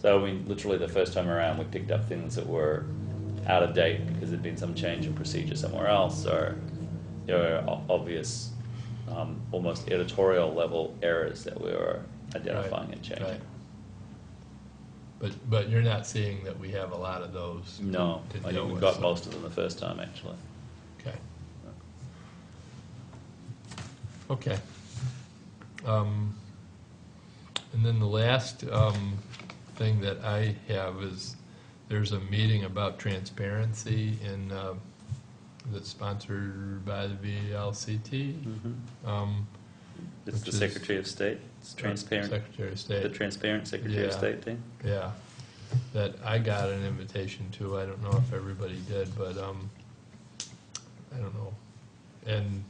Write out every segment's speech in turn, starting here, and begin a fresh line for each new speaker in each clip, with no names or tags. So we literally the first time around we picked up things that were out of date because there'd been some change in procedure somewhere else, or there were o- obvious, um, almost editorial level errors that we were identifying and changing.
Right. But, but you're not seeing that we have a lot of those?
No,
to
I
deal
think we
with,
got
so-
most of them the first time actually.
Okay. Okay. Um, And then the last um, thing that I have is, there's a meeting about transparency in, uh, that's sponsored by the VLCT. um,
It's
Which
the
is-
Secretary of State, it's transparent,
Secretary of
the
State,
transparent Secretary of
Yeah.
State thing.
yeah, that I got an invitation to, I don't know if everybody did, but, um, I don't know. And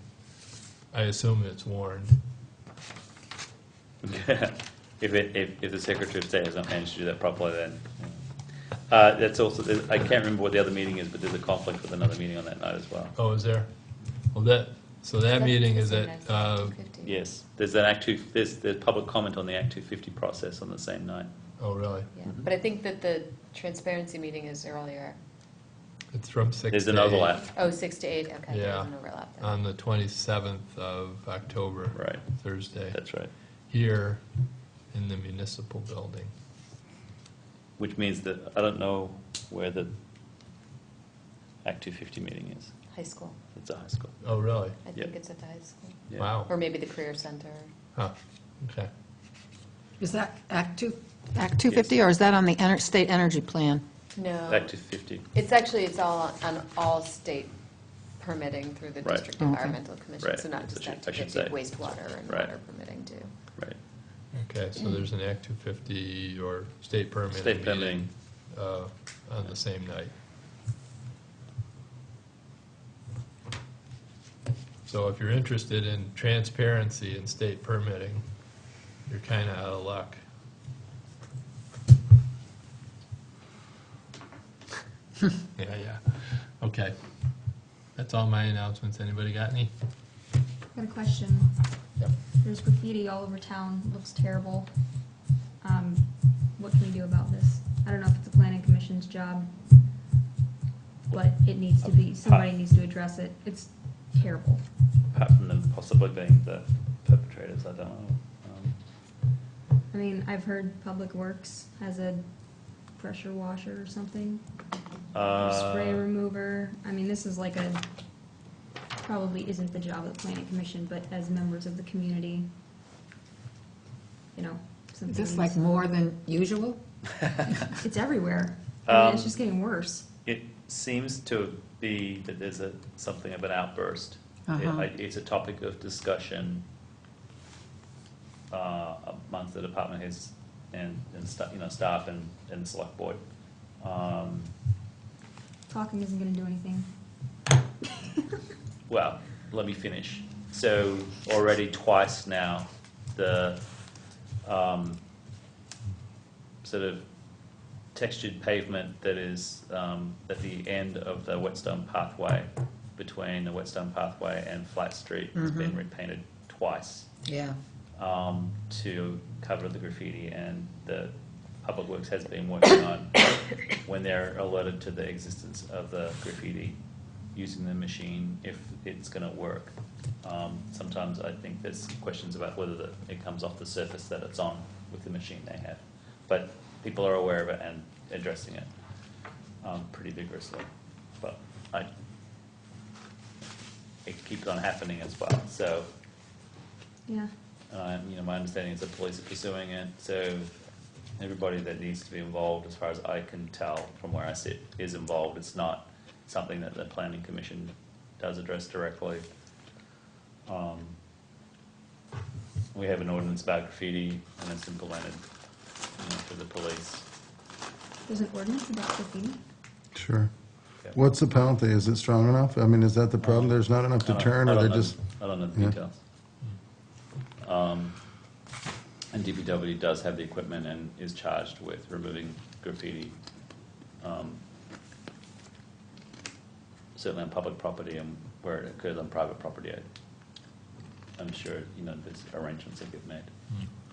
I assume it's warned.
If, it, if, if the Secretary of State has not managed to do that properly, then. Uh, that's also, there's- I can't remember what the other meeting is, but there's a conflict with another meeting on that night as well.
Oh, is there? Well, that, so that meeting is at, uh,
Yes, there's an Act Two, there's, there's public comment on the Act Two Fifty process on the same night.
oh, really?
Yeah, But I think that the transparency meeting is earlier,
It's from six
There's
to
an
eight
overlap,
oh, six to eight, okay,
Yeah. Um,
there's an overlap then.
On the twenty-seventh of October.
right,
Thursday,
that's right.
here in the municipal building.
Which means that, I don't know where the Act Two Fifty meeting is,
High school,
it's a high school.
Oh, really?
I
Yeah.
think it's at the high school,
Yeah.
Wow,
or maybe the career center.
huh, okay.
Is that Act 2, Act 250, or is that on the ener- state energy plan?
No,
Act Two Fifty,
it's actually, it's all on on all state permitting through the
Right.
District
Okay.
Environmental Commission,
Right.
so not
That's
just
what I
that,
should- I should
but
say.
wastewater and
Right.
water permitting too.
right,
Okay, so there's an Act two fifty or state permit.
State permitting.
Uh, on the same night. So if you're interested in transparency in state permitting, you're kinda out of luck. Yeah, yeah, okay. That's all my announcements. Anybody got any?
Got a question.
Yep.
There's graffiti all over town, looks terrible. Um, what can we do about this? I don't know if it's the planning commission's job, but it needs to be, somebody needs to address it. It's terrible.
apart from them possibly being the perpetrators, I don't know. Um,
I mean, I've heard Public Works has a pressure washer or something, or spray
Uh,
remover. I mean, this is like a, probably isn't the job of the planning commission, but as members of the community, you know, something.
Is this like more than usual?
It's everywhere. I mean,
Um,
it's just getting worse.
It seems to be that there's a, something of an outburst. It-
Uh-huh.
I- It's a topic of discussion uh, amongst the department heads and, and sta- you know, staff and, and select board. Um,
Talking isn't going to do anything.
Well, let me finish. So already twice now, the um, sort of textured pavement that is um, at the end of the Whetstone Pathway, between the Whetstone Pathway and Flat Street, has been
Mhm.
repainted twice
Yeah.
um, to cover the graffiti, and the Public Works has been working on when they're alerted to the existence of the graffiti, using the machine if it's going to work. Um, sometimes I think there's questions about whether the, it comes off the surface that it's on with the machine they have, but people are aware of it and addressing it um, pretty vigorously. But I, it keeps on happening as well, so
Yeah.
uh, you know, my understanding is the police are pursuing it, so everybody that needs to be involved, as far as I can tell from where I sit, is involved. It's not something that the planning commission does address directly. Um, We have an ordinance about graffiti, and it's implemented, you know, through the police.
There's an ordinance about graffiti.
Sure. What's the penalty? Is it strong enough? I mean, is that the problem? There's not enough
I don't-
deterrent,
I
or
don't
they're
know-
just,
I don't know the
Yeah.
details. Um, And DPW does have the equipment and is charged with removing graffiti. um, Certainly on public property and where it occurs on private property, I- I'm sure, you know, there's arrangements that get made.
Hmm.